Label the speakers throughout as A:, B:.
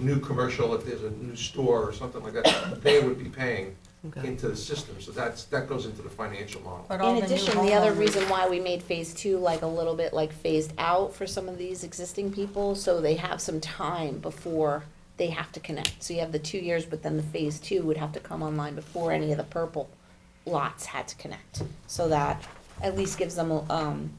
A: new commercial, if there's a new store or something like that, they would be paying
B: Okay.
A: into the system, so that's, that goes into the financial model.
C: But all
D: In
C: the new
D: addition, the other
C: homeowners-
D: reason why we made phase two like a little bit like phased out for some of these existing people, so they have some time before they have to connect. So you have the two years, but then the phase two would have to come online before any of the purple lots had to connect. So that at least gives them, um,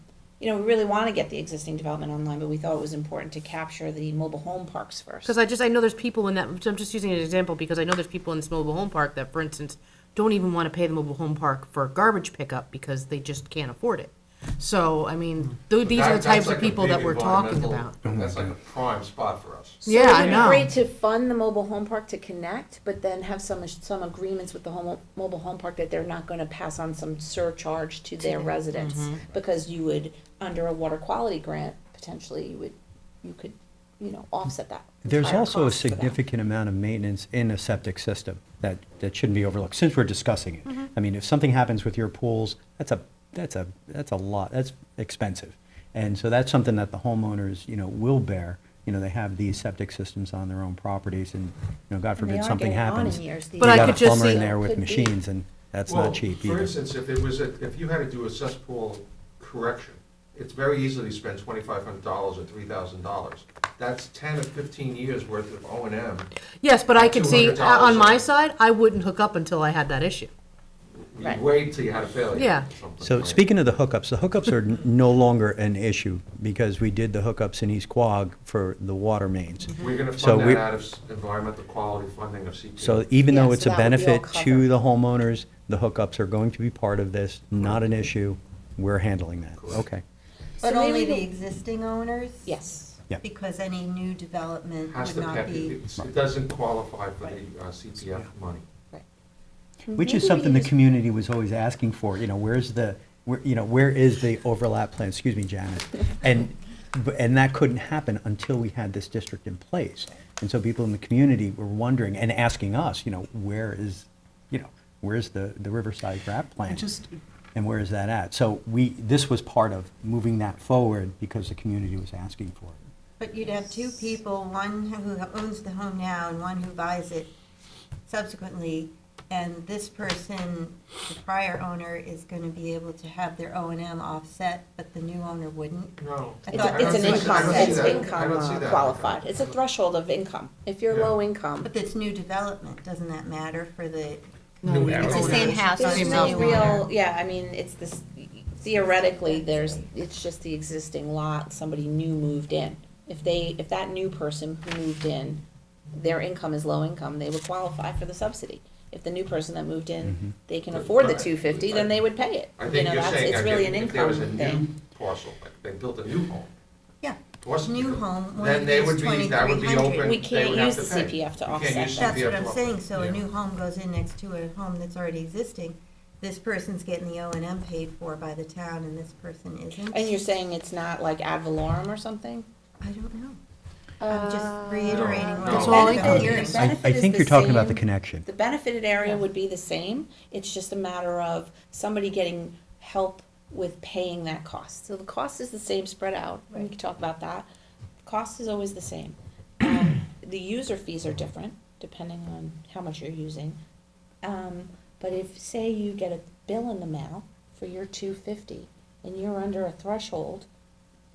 D: you know, we really wanna get the existing development online, but we thought it was important to capture the mobile home parks first.
B: Because I just, I know there's people in that, I'm just using an example because I know there's people in this mobile home park that, for instance, don't even want to pay the mobile home park for garbage pickup because they just can't afford it. So, I mean, tho- these are
A: That-
B: the
A: that's
B: types
A: like
B: of
A: a
B: people
A: big
B: that we're talking
A: environmental-
B: about.
A: That's like a prime spot for us.
D: So
B: Yeah,
D: it
B: I
D: would be
B: know.
D: Great to fund the mobile home park to connect, but then have some, some agreements with the home, mobile home park that they're not gonna pass on some surcharge to their residents. Because you would, under a water quality grant, potentially, you would, you could, you know, offset that.
E: There's
D: entire
E: also a
D: cost for them.
E: significant amount of maintenance in a septic system that, that shouldn't be overlooked, since we're discussing
D: Mm-hmm.
E: it. I mean, if something happens with your pools, that's a, that's a, that's a lot, that's expensive. And so that's something that the homeowners, you know, will bear. You know, they have these septic systems on their own properties and, you know, God
D: And they
E: forbid
D: aren't
E: something
D: getting on
E: happens.
D: in years these
B: But I
E: You got
B: could
E: a
B: just
E: plumber in
B: see-
E: there with
D: Could be.
E: machines and that's
A: Well,
E: not cheap
A: For
E: either.
A: instance, if it was, a- if you had to do a cesspool correction, it's very easy to spend twenty-five hundred dollars or three thousand dollars. That's ten or fifteen years worth of O and M.
B: Yes, but I could see, uh,
A: $200
B: on my
A: or-
B: side, I wouldn't hook up until I had that issue.
A: You
D: Right.
A: wait till you had a failure.
B: Yeah.
A: or something,
E: So
A: right?
E: speaking of the hookups, the hookups are n- no longer an issue because we did the hookups in East Quogue for the water mains.
A: We're gonna
E: So
A: fund that
E: we-
A: out of s- environmental quality funding of CPA.
E: So even
D: Yeah,
E: though
D: so
E: it's a
D: that would be all
E: benefit
D: covered.
E: to the homeowners, the hookups are going to be part of this, not an issue. We're handling that.
A: Correct.
E: Okay.
C: But
D: So
C: only
D: maybe
C: the
D: the-
C: existing owners?
D: Yes.
E: Yeah.
C: Because any new development
A: Has
C: would
A: to,
C: not
A: pay-
C: be.
A: it's- it doesn't qualify for the uh, CPF money.
E: Which
D: Maybe
E: is
D: we
E: something the
D: just-
E: community was always asking for, you know, where's the, where, you know, where is the overlap plan? Excuse me, Janice. And, bu- and that couldn't happen until we had this district in place. And so people in the community were wondering and asking us, you know, where is, you know, where's the, the Riverside RAP plan?
F: just-
E: And where is that at? So we, this was part of moving that forward because the community was asking for it.
C: But you'd have two people, one who owns the home now and one who buys it subsequently. And this person, the prior owner, is going to be able to have their O and M offset, but the new owner wouldn't.
A: No.
C: I
D: It's,
C: thought-
D: a-
C: I
D: it's an
C: don't see- I
D: income,
C: don't see
D: it's
C: that.
D: income uh, qualified. It's a threshold of income. If you're
A: Yeah.
D: low income,
C: But it's new development, doesn't that matter for the,
B: No, we
C: it's
B: don't.
C: the same house.
D: There's
C: same
D: no
C: house.
D: real, yeah, I mean, it's this, theoretically, there's, it's just the existing lot, somebody new moved in. If they, if that new person who moved in, their income is low income, they would qualify for the subsidy. If the new person that moved
E: Mm-hmm.
D: in, they can afford the
A: Right.
D: two fifty, then they would pay it.
A: I
D: You
A: think
D: know,
A: you're
D: that's,
A: saying
D: it's
A: that
D: really an
A: if if there
D: income
A: was a new
D: thing.
A: parcel, like they built a new home.
C: yeah.
A: Wasn't
C: New
A: there?
C: home, one
A: Then
C: of
A: they
C: these
A: would be, that would be
C: 2300.
A: open.
C: We
A: they
D: can't
A: would have
D: use
A: to
D: the
A: pay.
D: CPF to
A: You can't
D: offset
A: use
D: that.
C: That's what
A: CPF
C: I'm
A: to
C: saying,
A: offset.
C: so a
A: Yeah.
C: new home goes in next to a home that's already existing, this person's getting the O and M paid for by the town and this person isn't?
D: And you're saying it's not like ad valorem or something?
C: I don't know. I'm just reiterating
A: No.
C: what I'm
B: Uh, It's all
C: saying.
B: income.
C: You're-
D: The
E: Um, I, I
D: benefit is
E: think
D: the
E: you're talking about the
D: same.
E: connection.
D: The benefited area would be the same, it's just a matter of somebody getting help with paying that cost. So the cost is the same spread out, we can talk about that. Cost is always the same. Um, The user fees are different depending on how much you're using. Um, but if, say you get a bill in the mail for your two fifty and you're under a threshold,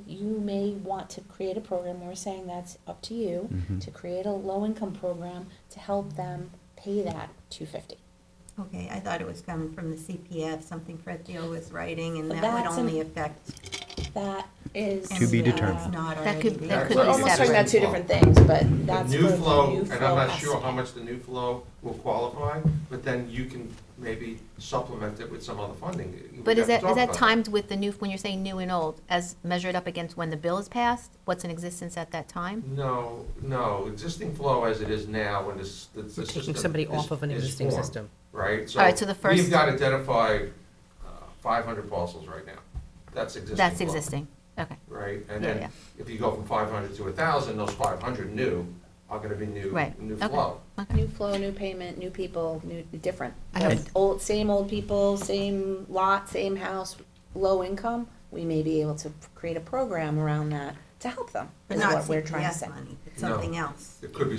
D: you may want to create a program, we're saying that's up to you,
E: Mm-hmm.
D: to create a low-income program to help them pay that two fifty.
C: Okay, I thought it was coming from the CPF, something Fred Deal was writing, and that would
D: That's an-
C: only affect.
D: That is. uh,
E: To be
C: anyone that's
E: determined.
C: Not
F: That could-
C: already
F: that
C: there.
F: could
D: We're
F: be
D: almost talking about two different things, but
A: The
D: that's.
A: new
D: where the
A: flow,
D: new
A: and
D: flow
A: I'm not
D: has
A: sure
D: to
A: how
D: be.
A: much the new flow will qualify, but then you can maybe supplement it with some other funding. We
F: But
A: have
F: is that,
A: to
F: is
A: talk
F: that
A: about
F: timed with the new, when you're saying new and old, as measured up against when the bill is passed? What's in existence at that time?
A: No, no, existing flow as it is now, when this, the the
B: We're
A: system.
B: taking somebody
A: is-
B: off of an
A: is
B: existing
A: formed,
B: system.
A: Right?
F: All right, so the
A: We've
F: first-
A: got identified five hundred parcels right now. That's existing.
F: That's
A: flow,
F: existing, okay.
A: Right? And
F: Yeah,
A: then
F: yeah.
A: if you go from five hundred to thousand, those five hundred new are gonna be new,
F: Right,
A: new
F: okay.
A: flow.
D: New flow, new payment, new people, new, different.
F: I have-
D: Those Old, same old people, same lot, same house, low income, we may be able to create a program around that to help them,
C: But
D: is
C: not
D: what we're trying to
C: CPF
D: say.
C: money, but
A: No.
C: Something else.
A: It could be